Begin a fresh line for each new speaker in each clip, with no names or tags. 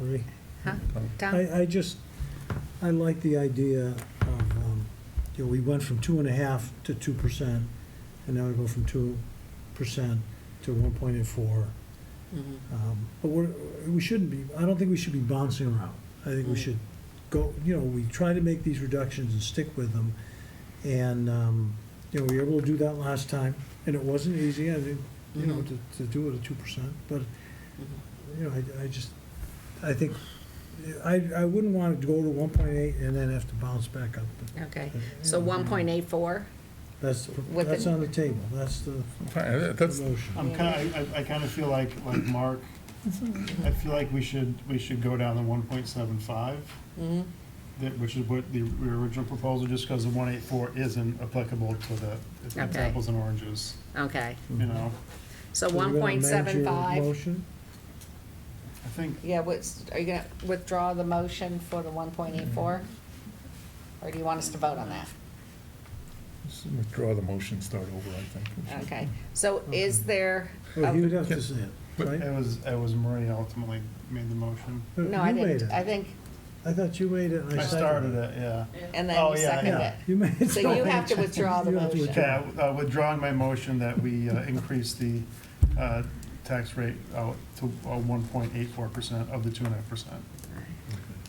Marie?
Huh? Tom?
I, I just, I like the idea of, um, you know, we went from two and a half to two percent, and now we go from two percent to one point eight four.
Mhm.
Um, But we're, we shouldn't be, I don't think we should be bouncing around. I think we
Mm.
should go, you know, we try to make these reductions and stick with them. And, um, you know, we were able to do that last time, and it wasn't easy, I think, you know,
Mhm.
to, to do it at two percent. But,
Mhm.
you know, I, I just, I think, I, I wouldn't want to go to one point eight and then have to bounce back up.
Okay, so
Mm-hmm.
one point eight four?
That's,
With
that's
the-
on the table, that's the
Fine,
the
That's,
motion.
I'm kind of, I, I kind of feel like, like Mark, I feel like we should, we should go down to one point seven five,
Mm-hmm.
Mhm.
that, which is what the, the original proposal, just because the one eight four isn't applicable to the, it's it's
Okay.
apples and oranges,
Okay,
you know?
so
So we're
one
gonna
point
amend
seven
your
five?
Motion,
I think,
Yeah, what's, are you gonna withdraw the motion for the one point eight four?
Mm-hmm.
Or do you want us to vote on that?
let's withdraw the motion, start over, I think.
Okay, so is there?
well,
a-
he would have to say it,
But-
right?
it was, it was Maria ultimately made the motion.
Uh,
No, I
you made
didn't,
it.
I think,
I thought you made it. and
I started it, yeah.
and
Oh,
then you
yeah,
seconded
Yeah,
it.
you made it.
So you have to withdraw the
You have to
motion.
withdraw.
Okay, uh, withdrawing my motion that we uh, increase the uh, tax rate out to uh, one point eight four percent of the two and a half percent.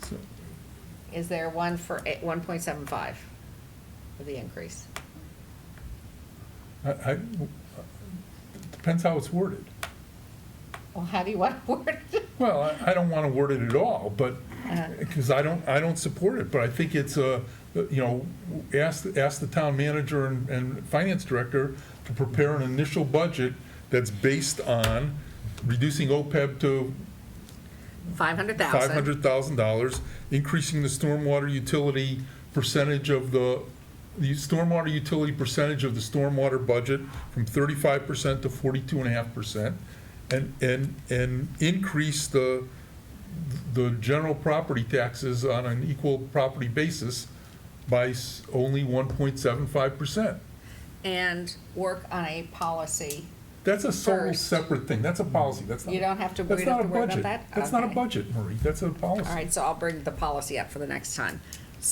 So,
Is there one for one point seven five for the increase?
I, I, depends how it's worded.
Well, how do you want to word it?
Well, I- I don't want to word it at all, but,
Uh-huh.
because I don't, I don't support it, but I think it's a, you know, ask, ask the town manager and, and finance director to prepare an initial budget that's based on reducing OPEB to
Five hundred thousand?
five hundred thousand dollars, increasing the stormwater utility percentage of the, the stormwater utility percentage of the stormwater budget from thirty-five percent to forty-two and a half percent, and, and, and increase the, the general property taxes on an equal property basis by s- only one point seven five percent.
And work on a policy.
That's a total
First.
separate thing, that's a policy, that's not.
You don't have to
that's
worry,
not
have to
a
worry about
budget.
that?
That's not a
Okay.
budget, Marie, that's a policy.
All right, so I'll bring the policy up for the next time.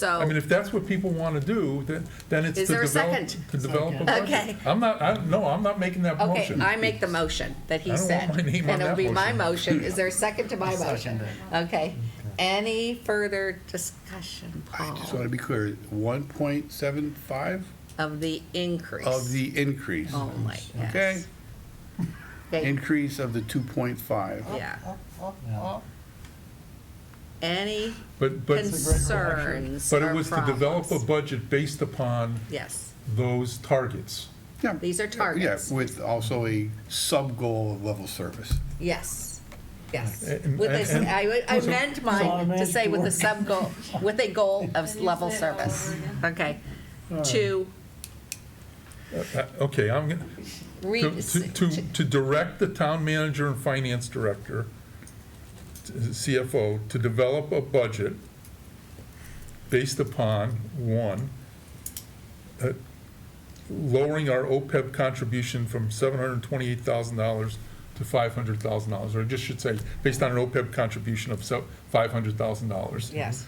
I mean,
So,
if that's what people want to do, then, then it's
Is
to
there a
develop,
second?
to develop a
Second.
budget.
Okay.
I'm not, I, no, I'm not making that
okay,
motion.
I make the motion that
I
he
don't
said.
want my name on
And it'll
that
be my
motion.
motion. Is there a second to my
I'll
motion?
second
Okay. Any further discussion,
I just
Paul,
want to be clear, 1.75
of the increase?
of the increase.
Only, yes.
Okay?
Okay,
Increase of the 2.5.
Yeah.
Yeah.
Any
But, but,
concerns
but
or
it was to develop a
problems?
budget based upon
Yes,
those targets.
Yeah.
These are targets.
Yeah, with also a sub-goal of level service.
yes, yes.
And-
With this,
and-
I, I meant mine to
Automatic
say with a
work.
sub goal, with a goal of
Can you
level
say it all
service.
over again?
Okay. To
Uh, Okay, I'm, gonna-
re,
to, to- to, to direct the town manager and finance director, t- CFO, to develop a budget based upon, one, uh, lowering our OPEB contribution from $728,000 to $500,000, or I just should say, based on an OPEB contribution of so- $500,000
yes,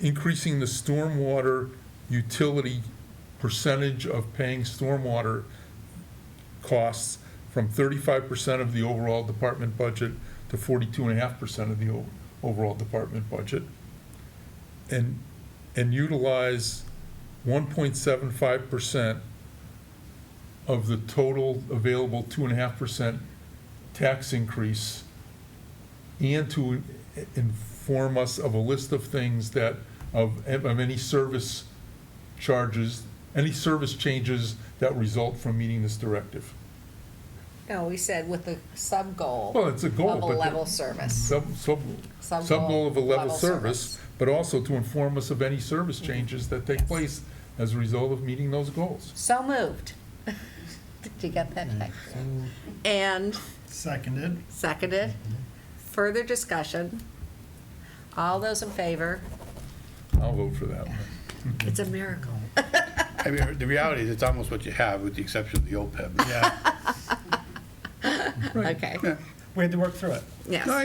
increasing the stormwater utility percentage of paying stormwater costs from thirty-five percent of the overall department budget to forty-two and a half percent of the o- overall department budget. And, and utilize one point seven five percent of the total available two and a half percent tax increase and to i- inform us of a list of things that, of, of any service charges, any service changes that result from meeting this directive.
no, we said with the sub goal.
Well, it's a goal,
Of a
but the-
level service.
Sub, sub,
Sub-goal,
sub-goal of a level
level
service,
service.
but also to inform us of any service changes that take place as a result of meeting those goals.
So moved. Did you get that? And
Seconded.
seconded. Further discussion. All those in favor?
I'll vote for that one.
It's a miracle.
I mean, the reality is, it's almost what you have, with the exception of the E OPEB.
Yeah,
Okay,
Yeah.
we had to work through it.
yes.
No, I